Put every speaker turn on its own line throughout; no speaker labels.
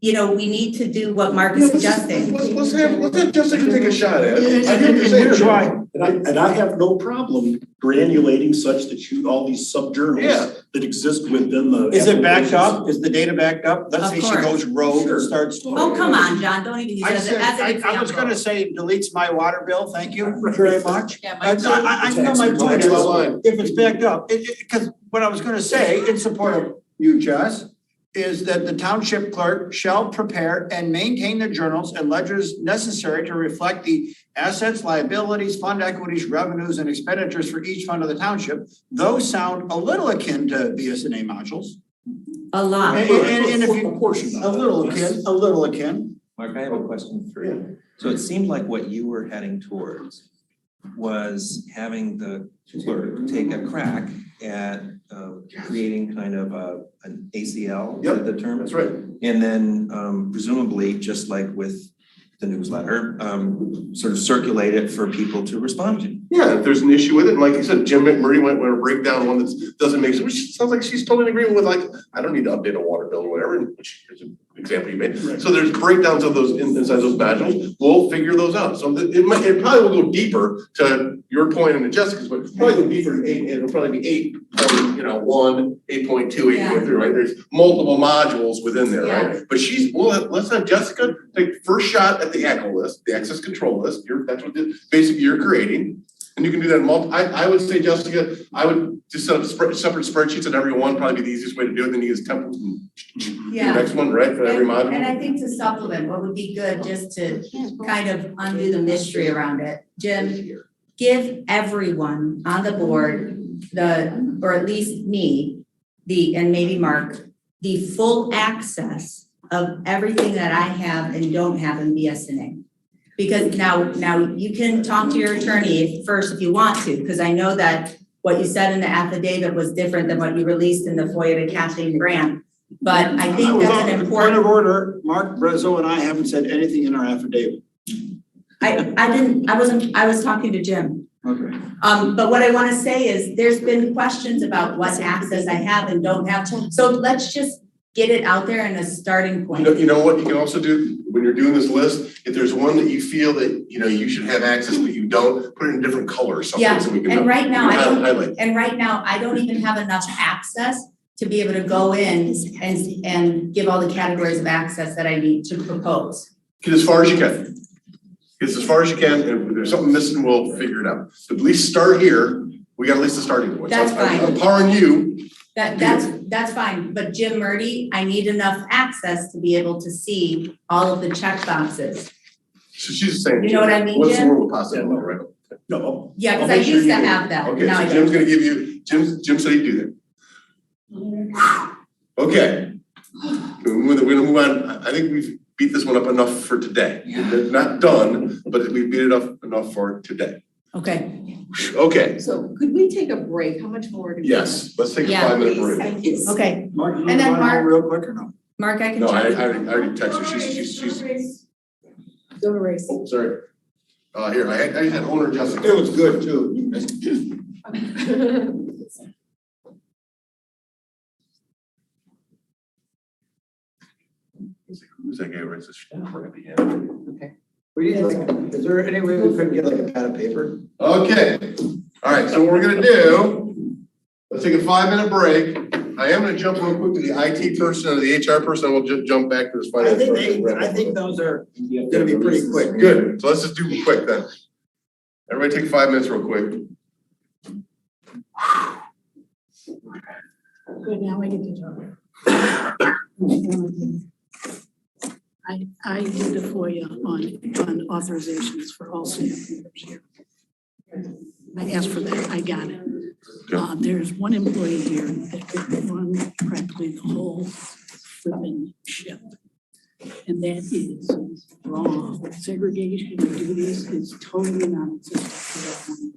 you know, we need to do what Mark is suggesting.
Let's, let's have, let's have Jessica take a shot at
And,
it.
and-
I think
and
you're
here's
saying-
why,
And I, and I have no problem granulating such that you, all these
Yeah.
subjournals that exist within the.
Is it backed
applications.
up? Is the data backed up? Let's
Of
say she
course.
goes rogue
Sure.
and starts.
Oh, come on, John, don't even use
I
that as
said,
a- as an
I,
example.
I was gonna say deletes my water bill, thank you very much.
Yeah,
I, I,
Mike.
I I know my
Tax
point
Next
returns.
is,
line.
if it's backed up, it, it, cause what I was gonna say in support of you, Jess, is that the township clerk shall prepare and maintain the journals and ledgers necessary to reflect the assets, liabilities, fund equities, revenues, and expenditures for each fund of the township. Those sound a little akin to BSNA modules.
A lot.
And, and- and if you,
A portion of
a
it.
little akin, a little akin.
Mark, I have a question for you. So it seemed like what you were heading towards was having the clerk take a crack at um, creating kind of a, an ACL, is that the term?
That's right.
And then um, presumably, just like with the newsletter, um, sort of circulate it for people to respond to.
Yeah, if there's an issue with it, and like you said, Jim McMurray went with a breakdown, one that doesn't make sense, which sounds like she's totally in agreement with like, I don't need to update a water bill or whatever, which is an example you made. So there's breakdowns of those in- inside those modules, we'll figure those out, so it it might, it probably will go deeper to your point and to Jessica's, but it'll probably go deeper, in eight, it'll probably be eight, or, you know, one, eight point two, eight point three, right? There's multiple modules within there, right? But she's, well, let- let's have Jessica take first shot at the ACL list, the access control list, you're, that's what, the- basically you're creating. And you can do that in multi, I, I would say, Jessica, I would just set up spread, separate spreadsheets on every one, probably be the easiest way to do it, then you use templates and do the next one, right, for every
And- And
module?
I think to supplement, what would be good, just to kind of undo the mystery around it, Jim, give everyone on the board the, or at least me, the, and maybe Mark, the full access of everything that I have and don't have in BSNA. Because now, now you can talk to your attorney if- first if you want to, because I know that what you said in the affidavit was different than what you released in the FOIA to Kathleen Grant. But I think that's an important.
Point of order, Mark Brezzo and I haven't said anything in our affidavit.
I, I didn't, I wasn't, I was talking to Jim.
Okay.
Um, but what I wanna say is, there's been questions about what access I have and don't have. So let's just get it out there in a starting
You know,
point.
you know what, you can also do, when you're doing this list, if there's one that you feel that, you know, you should have access, but you don't, put it in a different color or something,
Yeah,
so we can.
And right now,
we
I
can
don't,
Highlight,
and right now, I don't even have enough access to be able to go in and, and give all the categories of access that I need to propose.
get as far as you can. Get as far as you can, and if there's something missing, we'll figure it out, but at least start here, we got at least a starting point. So
That's
I'm-
fine.
I'm empowering you,
That, that's, that's fine, but Jim Murdy, I need enough access to be able to see all of the check boxes.
so she's saying.
You know what I mean,
What's the
Jim?
word with possible, right?
No,
Yeah,
I'll
because I
make sure
used to
you do.
have that,
Okay,
now I don't.
so Jim's gonna give you, Jim, Jim said he'd do that. Okay. We're gonna we're gonna move on, I- I think we've beat this one up enough for today. We're Not done, but we beat it up enough for today.
Okay,
Okay,
so could we take a break? How much more do we? have?
yes, let's take a
Yeah,
five minute
Please,
break.
thank you.
okay,
Mark, you
And then
wanna go
Mark-
real quick or no?
Mark, I can
No, I I
check.
already, I already texted her, she's she's she's,
Go to race.
oh, sorry. Uh, here, I had, I had owner Jessica.
It was good too.
Who's that guy who writes this crappy hand?
We need like, is there any way we could get like a pad of paper?
Okay, all right, so what we're gonna do, let's take a five minute break. I am gonna jump real quick to the IT person and the HR person, and we'll ju- jump back to this
I
finance
think,
person.
they-
and wrap
I
up.
think those are gonna be pretty quick.
Good, so let's just do it quick then. Everybody take five minutes real quick.
Good, now I get to talk. I, I did the FOIA on, on authorizations for all staff members here. I asked for that, I got it. Uh, there's one employee here that could run practically the whole flipping ship. And that is wrong. Segregation of duties is totally non-existent.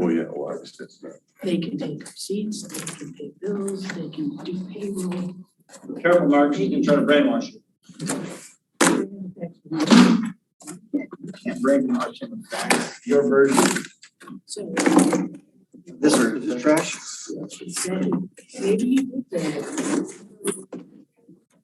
Oh, yeah, well, I just, it's not.
They can take receipts, they can pay bills, they can do payroll.
Careful, Mark, she can try to brainwash you. Can't brainwash him, in fact. Your version.
So
This is trash?
he said, maybe you did that.